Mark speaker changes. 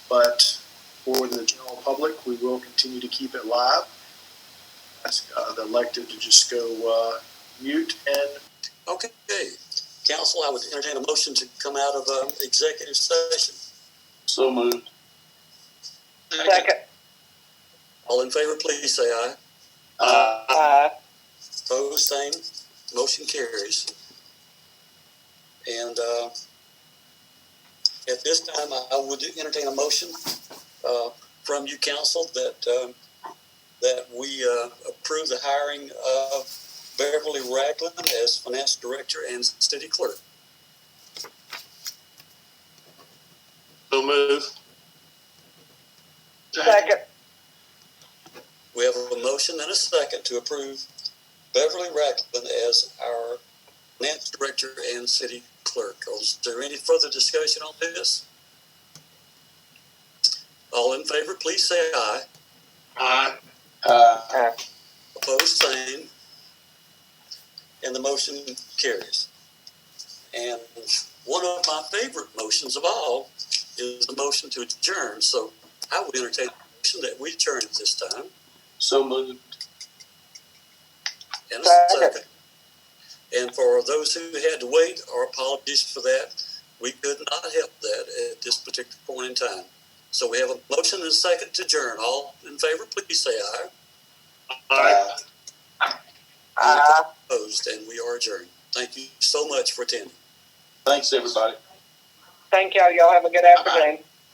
Speaker 1: but for the general public, we will continue to keep it live. Ask uh, the elected to just go uh, mute and
Speaker 2: Okay, council, I would entertain a motion to come out of, um, executive session.
Speaker 3: So moved.
Speaker 4: Second,
Speaker 2: All in favor, please say aye.
Speaker 3: Uh,
Speaker 4: uh,
Speaker 2: Opposed, same, motion carries. And, uh, at this time, I I would entertain a motion, uh, from you, council, that, um, that we, uh, approve the hiring of Beverly Ragland as finance director and city clerk.
Speaker 3: so moved.
Speaker 4: second,
Speaker 2: We have a motion and a second to approve Beverly Ragland as our finance director and city clerk. Is there any further discussion on this? All in favor, please say aye.
Speaker 3: Aye.
Speaker 4: uh,
Speaker 2: Opposed, same. And the motion carries. And one of my favorite motions of all is the motion to adjourn. So I would entertain the motion that we adjourn at this time.
Speaker 3: So moved.
Speaker 2: And a
Speaker 4: Second.
Speaker 2: second. And for those who had to wait, our apologies for that. We could not help that at this particular point in time. So we have a motion and a second to adjourn. All in favor, please say aye.
Speaker 3: Aye.
Speaker 4: uh.
Speaker 2: Opposed, and we are adjourned. Thank you so much for attending.
Speaker 3: Thanks, everybody.
Speaker 4: Thank y'all. Y'all have a good afternoon.